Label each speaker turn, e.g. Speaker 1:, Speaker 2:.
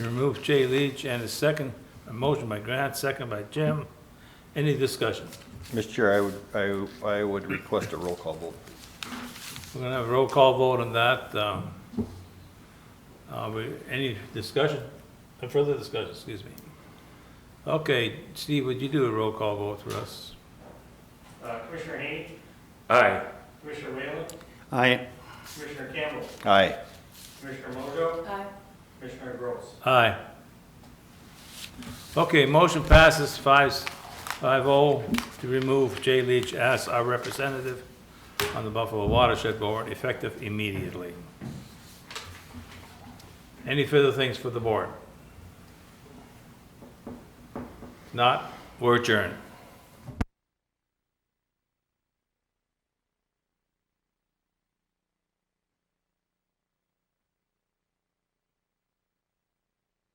Speaker 1: Move Jay Leach and a second, a motion by Grant, second by Jim. Any discussion?
Speaker 2: Mr. Chair, I would, I, I would request a roll call vote.
Speaker 1: We're gonna have a roll call vote on that. um, uh, we- Any discussion, Uh, further discussion, excuse me? Okay, Steve, would you do a roll call vote for us?
Speaker 3: Uh, Commissioner Haney,
Speaker 4: Aye.
Speaker 3: Commissioner Whalen,
Speaker 5: Aye.
Speaker 3: Commissioner Campbell,
Speaker 2: Aye.
Speaker 3: Commissioner Mojo,
Speaker 6: Aye.
Speaker 3: Commissioner Gross.
Speaker 1: Aye. Okay, motion passes five, five oh to remove Jay Leach as our representative on the Buffalo Watershed Board effective immediately. Any further things for the board? Not, we're adjourned.